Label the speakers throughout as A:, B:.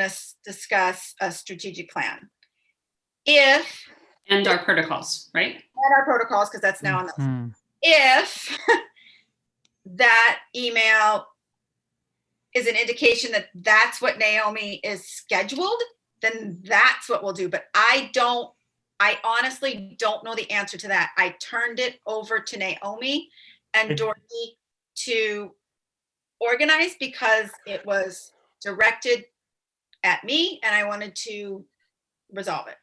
A: us discuss a strategic plan. If,
B: and our protocols, right?
A: and our protocols, because that's
C: Mm.
A: now on the
D: Mhm.
A: if that email is an indication that that's what Naomi is scheduled, then that's what we'll do. But I don't, I honestly don't know the answer to that. I turned it over to Naomi and
D: It-
A: Dorothy to organize because it was directed at me and I wanted to resolve it.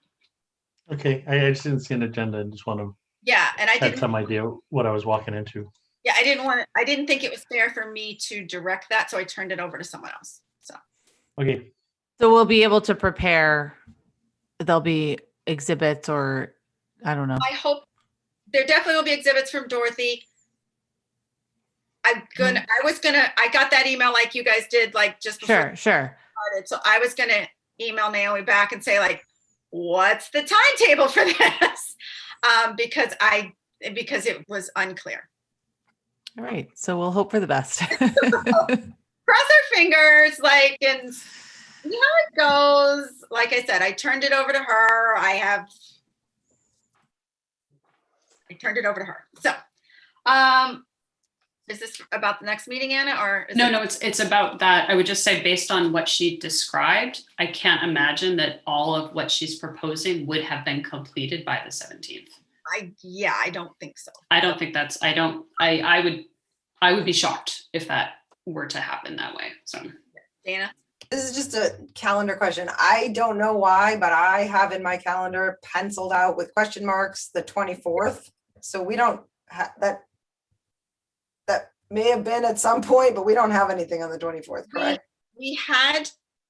D: Okay, I I just didn't see an agenda. I just want to
A: Yeah, and I
D: had
A: didn't
D: some idea what I was walking into.
A: Yeah, I didn't want, I didn't think it was fair for me to direct that, so I turned it over to someone else. So,
D: Okay,
C: So we'll be able to prepare. There'll be exhibits or I don't know.
A: I hope, there definitely will be exhibits from Dorothy. I'm gonna, I was gonna, I got that email like you guys did, like just before
C: Sure, sure.
A: we started, so I was gonna email Naomi back and say like, what's the timetable for this? Um, because I, because it was unclear.
C: All right. So we'll hope for the best.
A: Cross our fingers, like, and see how it goes. Like I said, I turned it over to her. I have I turned it over to her. So, um, is this about the next meeting, Anna, or? is
B: No,
A: it-
B: no, it's it's about that. I would just say based on what she described, I can't imagine that all of what she's proposing would have been completed by the 17th.
A: I, yeah, I don't think so.
B: I don't think that's I don't I I would I would be shocked if that were to happen that way. So
A: Dana?
E: This is just a calendar question. I don't know why, but I have in my calendar penciled out with question marks the twenty-fourth. So we don't have that. That may have been at some point, but we don't have anything on the twenty-fourth,
A: We-
E: correct?
A: We had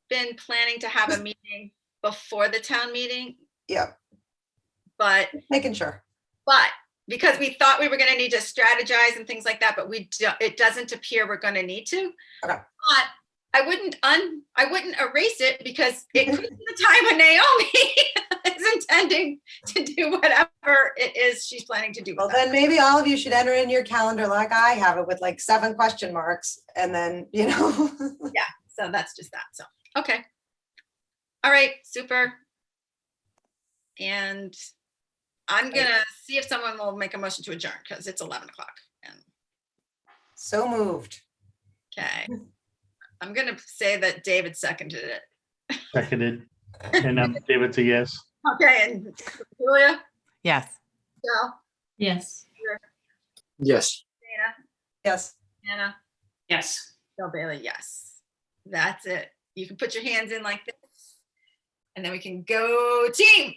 A: been planning to have a meeting before the town meeting,
E: Yeah,
A: but,
E: making sure.
A: but because we thought we were gonna need to strategize and things like that, but we, do- it doesn't appear we're gonna need to.
E: Okay.
A: But I wouldn't un, I wouldn't erase it because it
E: Mm-hmm.
A: could be the time when Naomi is intending to do whatever it is she's planning to do. with
E: Well,
A: us.
E: then maybe all of you should enter in your calendar like I have it with like seven question marks and then, you know.
A: So that's just that. So, okay. All right, super. And I'm gonna see if someone will make a motion to adjourn because it's eleven o'clock. And,
E: So moved.
A: okay. I'm gonna say that David seconded it.
D: seconded. And um, David's a yes.
A: Okay, and Julia,
C: yes.
A: Joe,
B: yes.
F: Yes.
E: Yes.
A: Anna,
B: Yes.
A: Joe Bailey, yes. That's it. You can put your hands in like this. And then we can go team.